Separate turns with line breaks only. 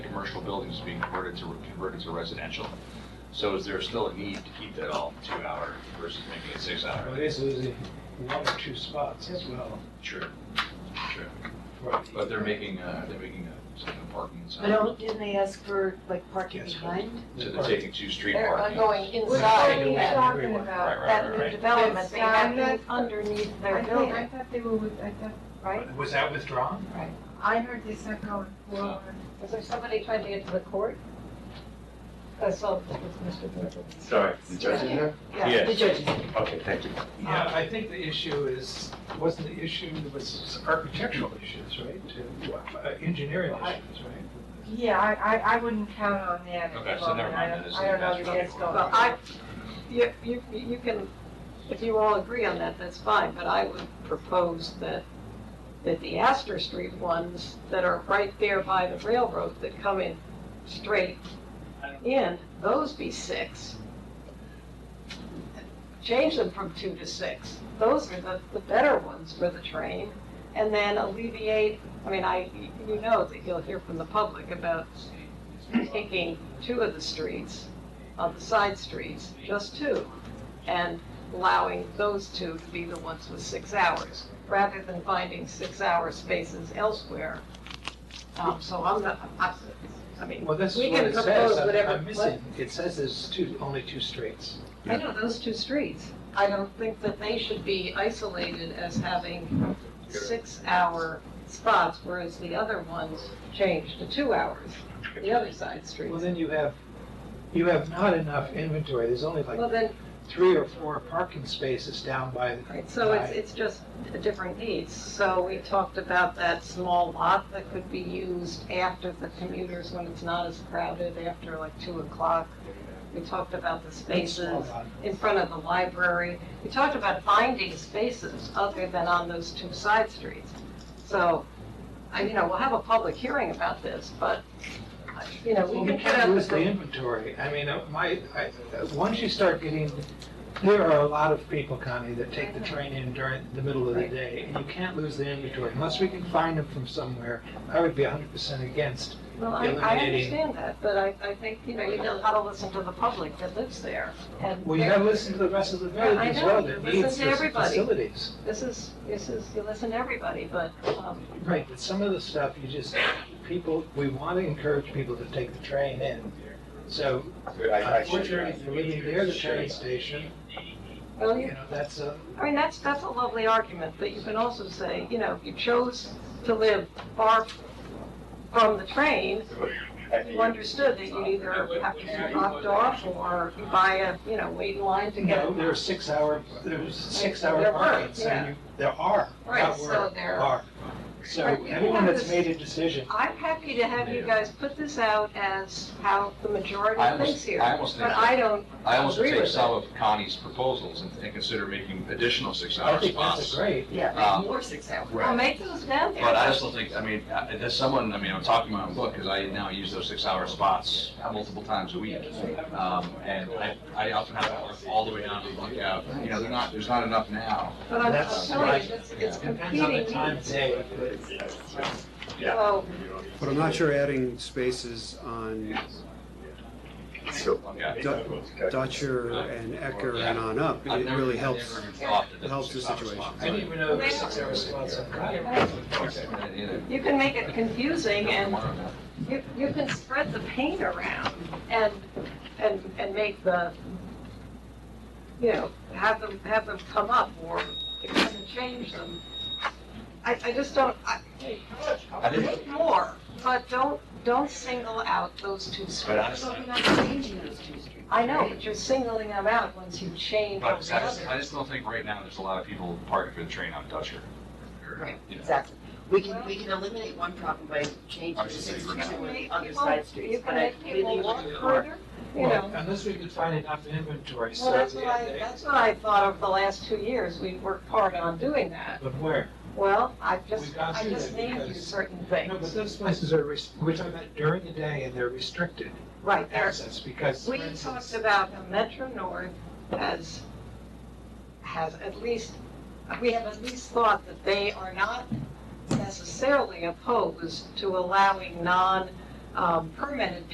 commercial buildings being converted to, converted to residential. So is there still a need to keep that all two-hour versus making it
Well,
six-hour?
it is losing one or two spots as well.
Sure, sure.
for-
But they're making, uh, they're making a, some parking,
But
so
don't, didn't they ask for like parking
Yes.
behind?
they're taking two street
They're
parking.
going
Which
Sorry,
one
inside
are you
yeah.
talking
Right,
about?
right,
That
right,
new
right.
development, they have
Down
to
at-
underneath their
I think,
building,
I thought they were with, I thought,
right?
Was that withdrawn?
I heard they said going forward.
Was there somebody trying to get to the court? I saw that was Mr. Burton.
Sorry, the judge in there?
Yeah, the judges.
Okay, thank you.
Yeah, I think the issue is, wasn't the issue, was architectural issues, right? To- uh, Engineering issues, right?
Yeah, I, I, I wouldn't count on that at
Okay,
the
so never
moment. I
mind, that
don't,
is-
I don't know
that's
that
really
that's going.
Well, I, you, you, you can, if you all agree on that, that's fine, but I would propose that, that the Astor Street ones that are right there by the railroad that come in straight in, those be six. Change them from two to six. Those are the, the better ones for the train. And then alleviate, I mean, I, you know that you'll hear from the public about taking two of the streets on the side streets, just two, and allowing those two to be the ones with six hours, rather than finding six-hour spaces elsewhere. Um, so I'm not, I, I mean,
Well, that's
We
what
can
it says,
propose
I'm-
whatever-
I'm missing, it says there's two, only two streets.
I know those two streets, I don't think that they should be isolated as having six-hour spots, whereas the other ones changed to two hours, the other side
Well,
streets.
then you have, you have not enough inventory, there's only
Well,
like
then,
three or four parking spaces down by, the-
Right, so it's, it's just a different needs. So we talked about that small lot that could be used after the commuters when it's not as crowded, after like two o'clock. We talked about the spaces in front of the library. We talked about finding spaces other than on those two side streets. So, I, you know, we'll have a public hearing about this, but, you know,
Well,
we
we
can put
can't
out
lose the
the.
inventory. I mean, uh, my, I, uh, once you start getting, there are a lot of people, Connie, that take the train in during the middle of the
Right.
day. and You can't lose the inventory unless we can find them from somewhere. I would be hundred percent against.
Well, I, I
eliminating-
understand that, but I, I think, you know, you know how to listen to the public that lives there. and
Well, you
they're-
gotta listen to the rest of the village
I
as
know,
well
you
that
listen
needs
to
the
everybody.
facilities.
This is, this is, you listen to everybody, but, um,
Right, but some of the stuff you just, people, we want to encourage people to take the train in. So unfortunately, if you're living near the train station,
well,
you
you,
know, that's a,
I mean, that's, that's a lovely argument, but you can also say, you know, if you chose to live far from the train, you understood that you'd either have to be dropped off or you buy a, you know, wait in line to
you
get.
know, there are six hour, there's six hour
There were,
markets
yeah.
and you, there are,
Right,
not
so
were,
there-
are. So
Right, you
anyone
have
that's
this-
made a decision,
I'm happy to have you guys put this out as how the majority
I almost-
thinks here.
I almost think
But
that-
I don't,
I almost
agree
take
with
some of Connie's proposals and and consider making additional
I
six-hour
think
spots.
that's a great.
Uh,
Yeah, more six hours.
well, make those down there.
But I also think, I mean, I- there's someone, I mean, I'm talking my own book, because I now use those six-hour spots multiple times a week. Um, and I, I often have to work all the way down to the lookout, you know, they're not, there's not enough now.
But I'm
That's
I'm telling
right.
you, it's- it's
Depends on the
competing
time of
needs.
day.
So,
But I'm not sure adding spaces on
So,
Yeah.
Du- Dutcher and Ecker and on up,
I've
it
never-
really
I've
helps.
never thought that
it helps
those
the
six-hour
situation.
spots
I didn't even know there was
Well-
six hour spots on Concord.
are- you know,
You can make it confusing and
tomorrow now.
you, you can spread the paint around and, and, and make the, you know, have them, have them come up or kind of change them. I, I just don't, I,
I didn't,
make more, but don't, don't single out those two
but
streets.
honestly,
I know, but you're singling them out once you change all
but I
the
just, I
others.
just don't think right now there's a lot of people parking for the train on Dutcher. Or,
Right.
you know.
Exactly. We can, we can eliminate one problem by changing the six
You
streets
can make
to other
people-
side
You
streets, but
can
I
make
completely
people walk
agree with Mark.
further, you know.
Well, unless we could find enough inventory, so.
Well, that's what
the-
I, that's what I thought of the last two years, we've worked hard on doing that.
But where?
Well, I
We
just,
got
I
through
just
that
named you
because-
certain
No, but
things.
those places are, rest- we're talking about during the day and they're restricted
Right, there,
access because. for
we
instance-
talked about the Metro North has, has at least, we have at least thought that they are not necessarily opposed to allowing non, um, permitted